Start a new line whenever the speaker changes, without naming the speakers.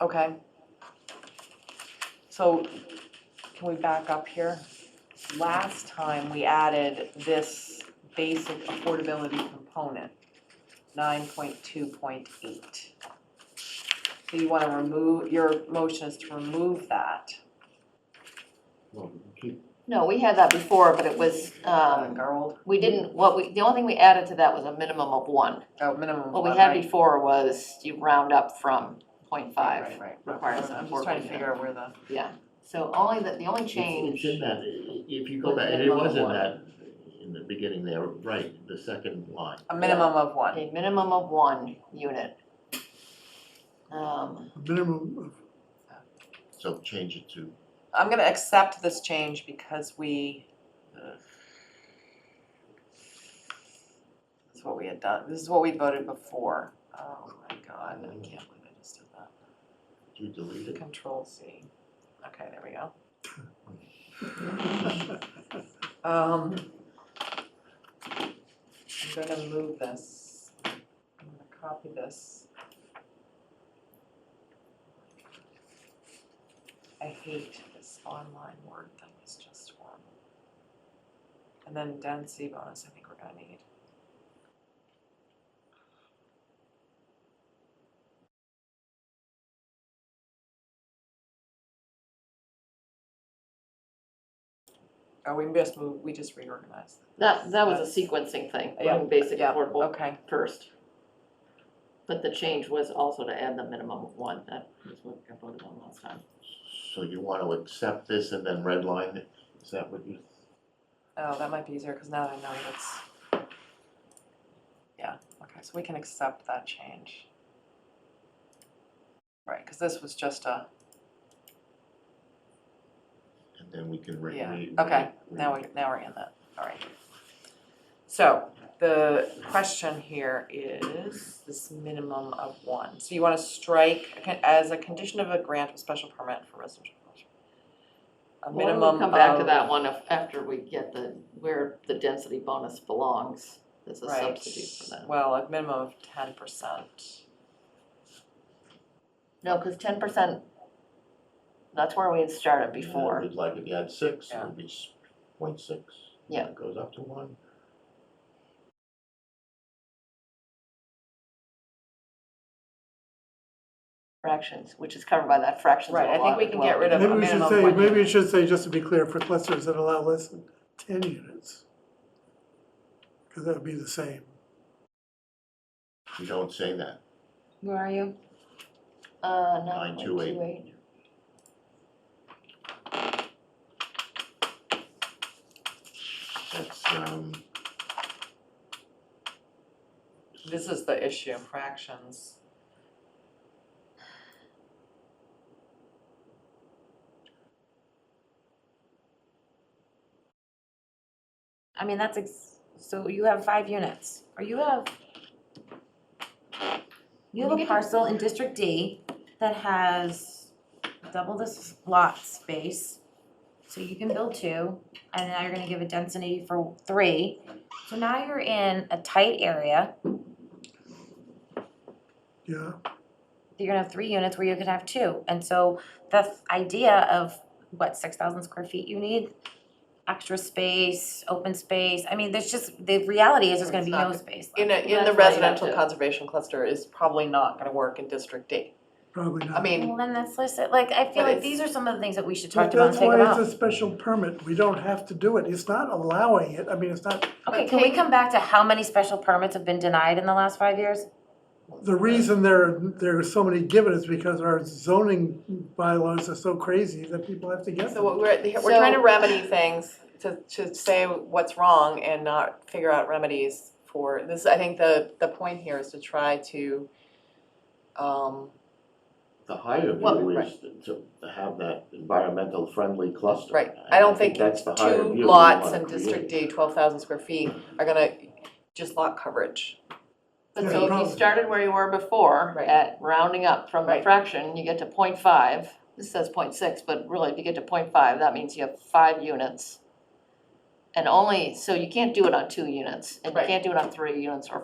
Okay. So can we back up here? Last time we added this basic affordability component, nine point two point eight. So you wanna remove, your motion is to remove that.
Well, we keep-
No, we had that before, but it was, um,
Gerald,
we didn't, what we, the only thing we added to that was a minimum of one.
oh, minimum of
What we
one,
had
right?
before was you round up from point
Right,
five,
right, right.
requires an
I'm just trying
affordable
to figure out where the,
yeah. So only the, the only
it's-
change,
It's in that, i- i- if you go
With
back, and it
minimum
was in
one.
that, in the beginning there, right, the second line.
a minimum of one,
a minimum of one unit. Um,
minimum of
So change it to,
I'm gonna accept this change because we.
uh,
That's what we had done, this is what we voted before. Oh my god, I can't believe I just did that.
do you delete it?
Control C. Okay, there we go. Um. I'm gonna move this, I'm gonna copy this. I hate this online word thing, it's just horrible. And then density bonus, I think we're gonna need. Oh, we just move, we just reorganized.
that, that was a sequencing thing,
Yeah,
putting basic
yeah,
affordable
Okay,
first. But the change was also to add the minimum of one, that was what I voted on last time.
So you want to accept this and then redline it? Is that what you,
oh, that might be easier, cause now that I know that's. Yeah, okay, so we can accept that change. Right, cause this was just a,
and then we can re-
Yeah,
re-
okay,
re-
now we, now we're in that, alright. So, the question here is this minimum of one, so you wanna strike a con- as a condition of a grant of special permit for residential. commercial. A
Why don't
minimum
we come back to
of-
that one af- after we get the, where the density bonus belongs, as a
Right.
substitute for that.
Well, a minimum of ten percent.
No, because ten percent, that's where we had started
And
before.
We'd like it to add six, it
Yeah.
would be s- point six.
Yeah.
It Goes up to one.
fractions, which is covered by that fractions of
Right, I
a
think
lot
we
as
can
well.
get rid of
Maybe
a
we
minimum
should
of
say,
one
maybe we
unit.
should say, just to be clear, for clusters that allow less than ten units. Because that would be the same.
You don't say that.
Where are you?
Uh, nine point two
9.28.
eight.
That's, um,
This is the issue, fractions.
I mean, that's, ex- so you have five units, or you have, you have a parcel in District D that has double this lot space, so you can build two, and now you're gonna give a density for three. So now you're in a tight area,
Yeah,
you're gonna have three units where you could have two, and so the th- idea of, what, six thousand square feet you need? Extra space, open space, I mean, there's just, the reality is there's gonna
It's
be
not-
no space left.
In a, in
That's why
the
you have
residential
to-
conservation cluster is probably not gonna work in District D.
probably not.
I mean,
Well, then that's listed, like, I feel
But
like
it's-
these are some of the things that we should
But
talk about and figure
That's why
out.
it's a special permit, we don't have to do it, it's not allowing it, I mean, it's not,
Okay, can we come back to how many special permits have been denied in the last five years?
the reason there, there are so many given is because our zoning bylaws are so crazy that people have to get
so
them.
what we're, we're
So-
trying to remedy things, to, to say what's wrong and not figure out remedies for, this, I think the, the point here is to try to, um,
the higher
Well,
view is to to have that environmental friendly cluster.
Right. I don't think
that's the higher view
two
we
lots
wanna
in
create.
District D, twelve thousand square feet, are gonna, just lot coverage.
But
Yeah,
so if
problem.
you started where you were before,
Right.
at rounding up from a
Right.
fraction, you get to point five. This says point six, but really, if you get to point five, that means you have five units. And only, so you can't do it on two units, and you
Right.
can't do it on three units or